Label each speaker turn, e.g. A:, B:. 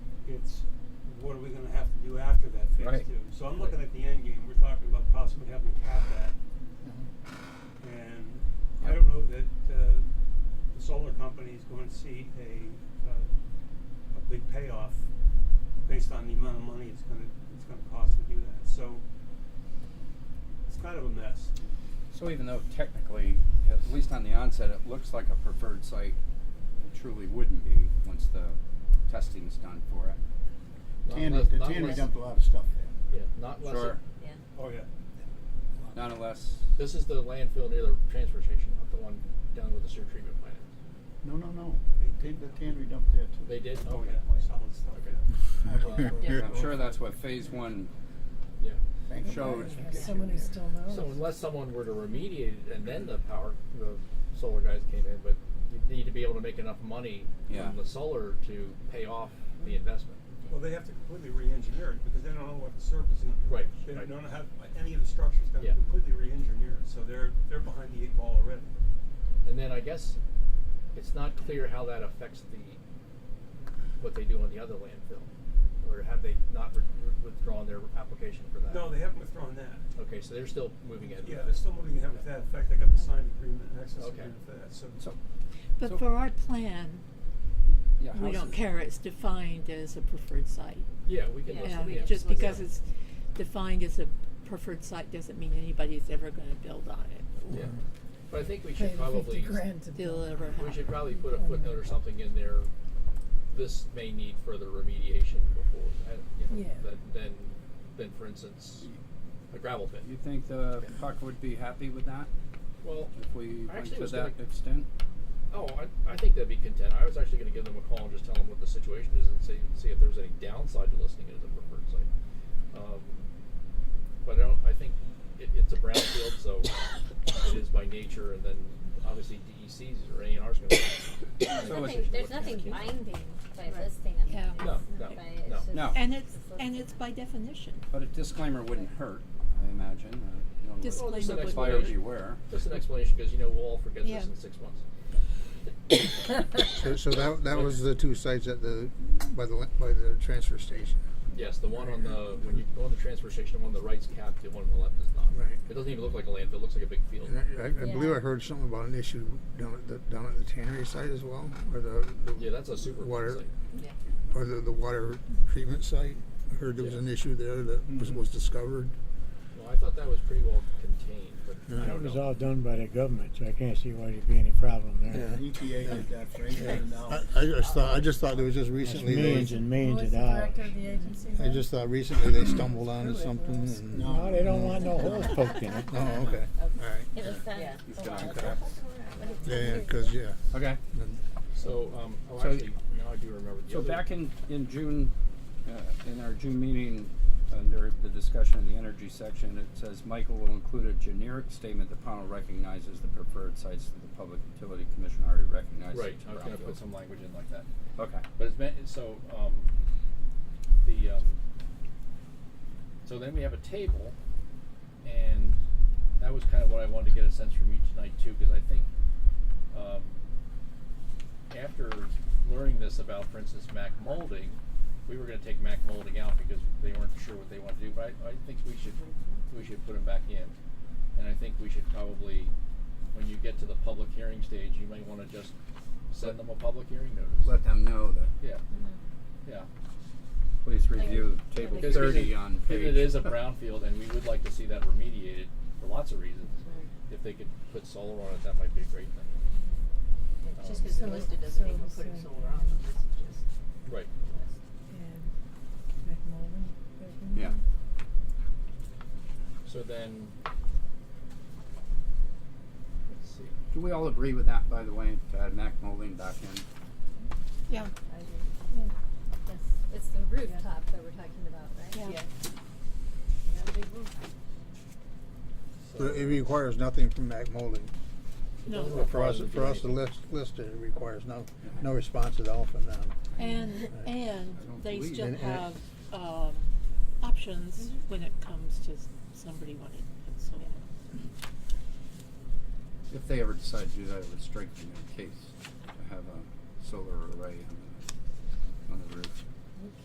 A: phase
B: Right.
A: two. So I'm looking at the end game. We're talking about possibly having to cap that, and I
B: Yep.
A: don't know that uh, the solar company is going to see a uh, a big payoff based on the amount of money it's going to it's going to cost to do that. So it's kind of a mess.
B: So even though technically, at least on the onset, it looks like a preferred site, it truly wouldn't be once the testing is done for it.
C: Not
D: Tannery,
C: unless-
D: the
C: not
D: tannery
C: unless-
D: dumped a lot of stuff there.
C: Yeah, not unless. it-
B: Sure.
E: Yeah.
A: Oh yeah.
B: Not unless,
C: This is the landfill near the transfer station, not the one down with the sewer treatment plant.
D: No, no, no. They did the tannery dump there too.
C: They did?
A: Oh
C: Okay.
A: yeah. Solid stuff.
C: Okay.
A: Yeah.
E: Yeah.
B: I'm sure that's what phase one,
C: Yeah.
D: Thank you.
B: Shows.
F: Someone who still
D: Oh.
F: knows.
C: So unless someone were to remediate it and then the power, the solar guys came in, but you need to be able to make enough money
B: Yeah.
C: from the solar to pay off the investment.
A: Well, they have to completely re-engineer it because they don't know what the surface is going to be.
C: Right,
A: They
C: right.
A: don't know how any of the structures going to
C: Yeah.
A: completely re-engineer it. So they're they're behind the eight ball already.
C: And then I guess it's not clear how that affects the, what they do on the other landfill. Or have they not re- withdrawn their application for that?
A: No, they haven't withdrawn that.
C: Okay, so they're still moving ahead. with
A: Yeah,
C: that.
A: they're still moving ahead with that. In fact, they got the signed agreement, and access
C: Okay.
A: agreement for that. So,
B: so, So-
G: But for our plan,
B: yeah.
G: we
B: how's
G: don't
B: it-
G: care, it's defined as a preferred site.
C: Yeah, we can
E: Yeah,
C: listen.
G: Yeah,
E: we
G: just
E: look at
G: because
E: it.
G: it's defined as a preferred site doesn't mean anybody's ever gonna build on it.
C: Yeah. But I think we
F: Pay
C: should
F: the 50
C: probably,
F: grand to
G: They'll
F: build.
G: ever have.
C: we should probably put a footnote or something in there. This may need further remediation before, I- you know,
F: Yeah.
C: than, than, than for instance, a gravel pit.
B: You think the puck would be happy with that,
C: Well,
B: if we
C: I
B: went
C: actually
B: to
C: was
B: that
C: gonna-
B: extent?
C: oh, I, I think that'd be content. I was actually gonna give them a call and just tell them what the situation is and see, see if there's any downside to listing it as a preferred site. Um, But I don't, I think it, it's a brownfield, so it is by nature and then obviously DECs or A and R's gonna.
B: So
C: make a
B: it's-
C: decision
H: Nothing,
C: what
H: there's
C: to
H: nothing
C: do.
H: binding by
G: Right.
H: listing them.
G: Yeah.
H: It's
C: No,
H: not
C: no,
H: by- it's
C: no.
H: just-
B: No.
G: And it's, and it's by definition.
B: But a disclaimer wouldn't hurt, I imagine. uh, you know,
G: Disclaimer
C: Well, just an
G: would
B: Buyer
C: explanation.
B: beware.
C: Just an explanation, because you know we'll all forget
G: Yeah.
C: this in six months.
I: So, so that, that was the two sites at the, by the, by the transfer station.
C: Yes, the one on the when you go on the transfer station, the one on the right's capped, the one on the left is not.
I: Right.
C: It doesn't even look like a landfill; it looks like a big field.
I: And I, I I believe
H: Yeah.
I: I heard something about an issue down at the, down at the tannery site as well, or the, the.
C: Yeah, that's a super
I: Water,
C: site.
G: Yeah.
I: or the, the water treatment site. I heard there was
C: Yeah.
I: an issue there that was,
D: Mhm.
I: was discovered.
C: Well, I thought that was pretty well contained, but I
I: Yeah.
C: don't
J: That was
C: know.
J: all done by the government, so I can't see why there'd be any problem there.
I: Yeah.
D: EPA E did that for England and now.
I: I, I just thought, I just thought there was just
J: That's
I: recently,
J: millions
I: they,
J: and
F: Who
J: millions
F: was
J: of
F: the
J: dollars.
F: director of the agency?
I: I
F: then?
I: just thought recently they stumbled onto something and.
J: No, they don't want no holes poked in it.
I: Oh, okay, all right.
H: It was done.
E: Yeah.
H: a
B: Done,
H: while
B: okay.
H: ago.
I: Yeah, yeah, cause, yeah.
B: Okay.
C: So, um, oh,
B: So-
C: actually, now I do remember. The
B: So
C: other-
B: back in, in June, uh, in our June meeting, under the discussion of the energy section, it says Michael will include a generic statement that panel recognizes the preferred sites that the Public Utility Commission already recognizes.
C: right,
B: to
C: I was going to
B: brownfield."
C: put some language in like that.
B: Okay,
C: But it's meant so um, the um, so then we have a table, and that was kind of what I wanted to get a sense from you tonight too, because I think um, after learning this about, for instance, Mac molding, we were going to take Mac molding out because they weren't sure what they wanted to do. But I, I think we should we should put them back in, and I think we should probably. When you get to the public hearing stage, you might want to just send them a public hearing notice.
B: let them know that,
C: Yeah, yeah.
B: please review table
C: Because if
B: thirty
C: it-
B: on
C: if
B: page.
C: it is a brownfield, and we would like to see that remediated for lots of reasons. If they could put solar on it, that might be a great thing.
E: Yeah, Just because they're
F: So-
E: listed doesn't mean
F: so-
E: we're putting
F: so-
E: solar on them, this is just
C: Right.
E: a list.
F: And McMullen, Bergman.
B: Yeah.
C: So then, let's see.
B: Do we all agree with that, by the way, to add Mac molding back in?
G: Yeah.
H: I agree.
F: Yeah.
H: Yes, it's the rooftop that we're talking about, right?
G: Yeah.
E: Yeah. Another big roof.
I: But it requires nothing from Mac Molding.
G: No.
C: Those are
I: For us,
C: problems
I: for us
C: you
I: to
C: need.
I: list, list it, it requires no, no response at all from them.
G: And,
I: I
G: and
B: don't
G: they
B: believe
G: still
I: it.
G: have, um, options when it comes to s- somebody wanting to put solar.
B: If they ever decide to do that, it would strike me in case to have a solar array on the, on the roof.